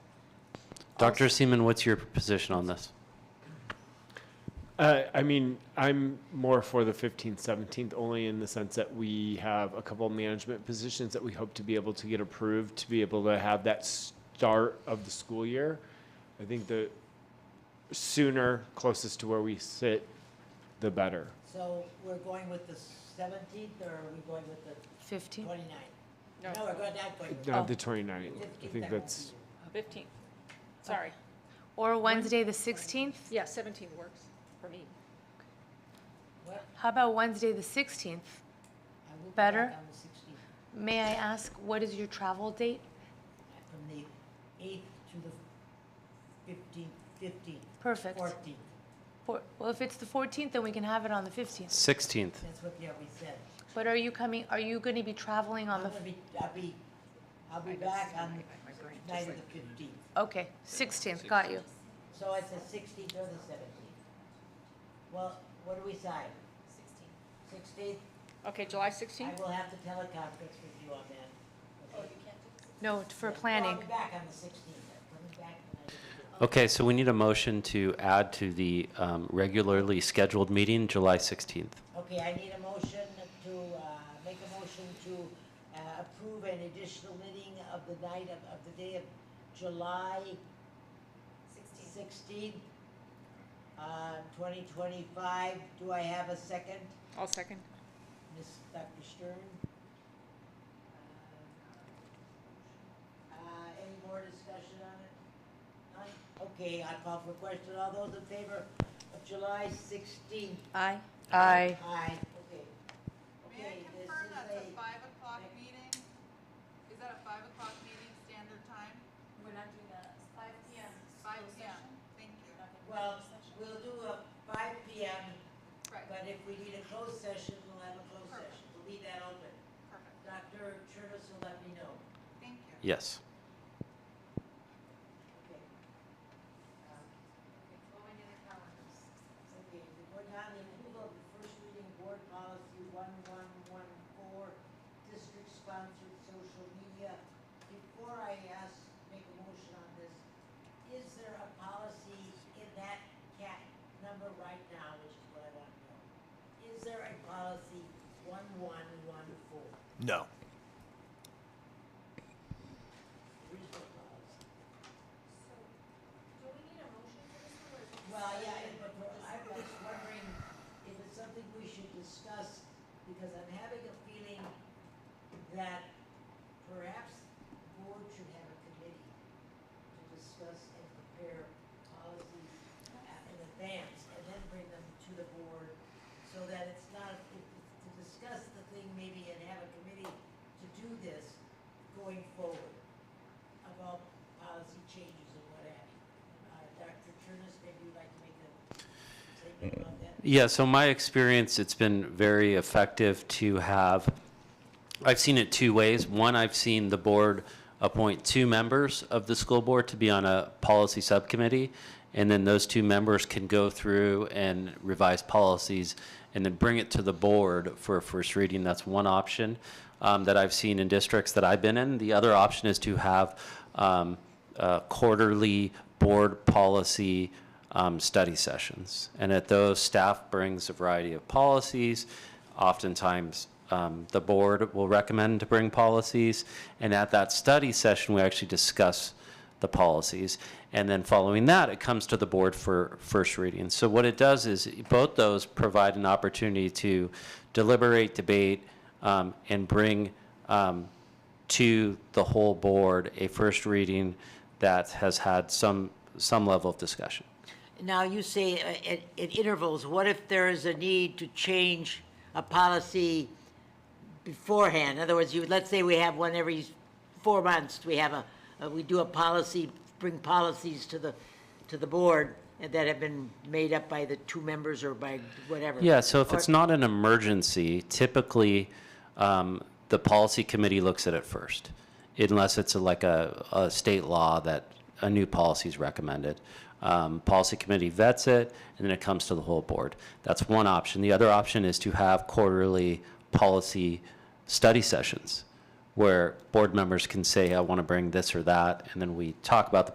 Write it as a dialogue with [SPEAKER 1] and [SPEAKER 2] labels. [SPEAKER 1] Dr. Seaman, what's your position on this?
[SPEAKER 2] Uh, I mean, I'm more for the 15th, 17th, only in the sense that we have a couple management positions that we hope to be able to get approved to be able to have that start of the school year. I think the sooner, closest to where we sit, the better.
[SPEAKER 3] So we're going with the seventeenth, or are we going with the
[SPEAKER 4] 15?
[SPEAKER 3] twenty-ninth? No, we're going not going.
[SPEAKER 2] Not the
[SPEAKER 4] Oh.
[SPEAKER 2] 29th. I think that's,
[SPEAKER 5] 15th. Sorry.
[SPEAKER 4] Or Wednesday, the 16th?
[SPEAKER 5] Yeah, 17 works for me.
[SPEAKER 4] How about Wednesday, the 16th? Better? May I ask, what is your travel date?
[SPEAKER 3] uh, From the eighth to the fifteenth, fifteenth,
[SPEAKER 4] Perfect.
[SPEAKER 3] fourteenth,
[SPEAKER 4] For- Well, if it's the 14th, then we can have it on the 15th.
[SPEAKER 1] 16th.
[SPEAKER 3] that's what the RB said.
[SPEAKER 4] But are you coming, are you going to be traveling on
[SPEAKER 3] I'm
[SPEAKER 4] the,
[SPEAKER 3] gonna be, I'll be, I'll be back on the night of the fifteenth.
[SPEAKER 4] okay, 16th, got you.
[SPEAKER 3] So it's the sixteenth or the seventeenth. Well, what do we decide? Sixteenth.
[SPEAKER 5] Okay, July
[SPEAKER 3] Sixteenth?
[SPEAKER 5] 16th?
[SPEAKER 3] I will have to teleconference with you on that. Okay.
[SPEAKER 4] No, for
[SPEAKER 3] Yeah. Well,
[SPEAKER 4] planning.
[SPEAKER 3] I'll be back on the sixteenth, I'll be back the night of the
[SPEAKER 1] Okay, so we need a motion to add to the um, regularly scheduled meeting, July 16th.
[SPEAKER 3] Okay, I need a motion to, uh, make a motion to uh, approve an additional meeting of the night of, of the day of July sixteenth, uh, twenty twenty-five. Do I have a second,
[SPEAKER 5] I'll second.
[SPEAKER 3] Ms. Dr. Stern? Uh, any more discussion on it? None? Okay, I call for question. All those in favor of July sixteenth,
[SPEAKER 4] Aye. Aye.
[SPEAKER 3] Aye, okay.
[SPEAKER 6] May I
[SPEAKER 3] Okay, this
[SPEAKER 6] confirm
[SPEAKER 3] is
[SPEAKER 6] that's a
[SPEAKER 3] a-
[SPEAKER 6] five o'clock meeting? Is that a five o'clock meeting standard time?
[SPEAKER 7] We're not doing that. Five PM.
[SPEAKER 6] Five PM, thank you.
[SPEAKER 3] Well, we'll do a five P M,
[SPEAKER 6] Right,
[SPEAKER 3] but if we need a closed session, we'll have a closed session. We'll leave that open.
[SPEAKER 6] perfect,
[SPEAKER 3] Dr. Chernus will let me know.
[SPEAKER 6] thank you.
[SPEAKER 1] Yes.
[SPEAKER 3] Okay. Um, Okay, we're now in approval of the first reading board policy one one one four, district-sponsored social media. Before I ask, make a motion on this, is there a policy in that cat number right now, which is what I want to know? Is there a policy one one one four?
[SPEAKER 8] No.
[SPEAKER 3] There is no policy. Well, yeah, I- but for- I was wondering if it's something we should discuss, because I'm having a feeling that perhaps the board should have a committee to discuss and prepare policies in advance, and then bring them to the board, so that it's not, if- to discuss the thing maybe and have a committee to do this going forward about policy changes and what have you. Uh, Dr. Turnus, maybe you'd like to make a statement about that?
[SPEAKER 1] Yeah, so my experience, it's been very effective to have, I've seen it two ways. One, I've seen the board appoint two members of the school board to be on a policy subcommittee, and then those two members can go through and revise policies and then bring it to the board for a first reading. That's one option um, that I've seen in districts that I've been in. The other option is to have um, uh, quarterly board policy um, study sessions. And at those, staff brings a variety of policies. Oftentimes, um, the board will recommend to bring policies. And at that study session, we actually discuss the policies. And then following that, it comes to the board for first reading. So what it does is both those provide an opportunity to deliberate, debate, um, and bring um, to the whole board a first reading that has had some, some level of discussion.
[SPEAKER 3] Now, you say uh, at, at intervals, what if there is a need to change a policy beforehand? In other words, you, let's say we have one every four months, we have a, uh, we do a policy, bring policies to the, to the board that have been made up by the two members or by whatever.
[SPEAKER 1] Yeah, so if
[SPEAKER 3] Or-
[SPEAKER 1] it's not an emergency, typically, um, the policy committee looks at it first, unless it's like a, a state law that a new policy is recommended. Um, policy committee vets it, and then it comes to the whole board. That's one option. The other option is to have quarterly policy study sessions, where board members can say, I want to bring this or that, and then we talk about the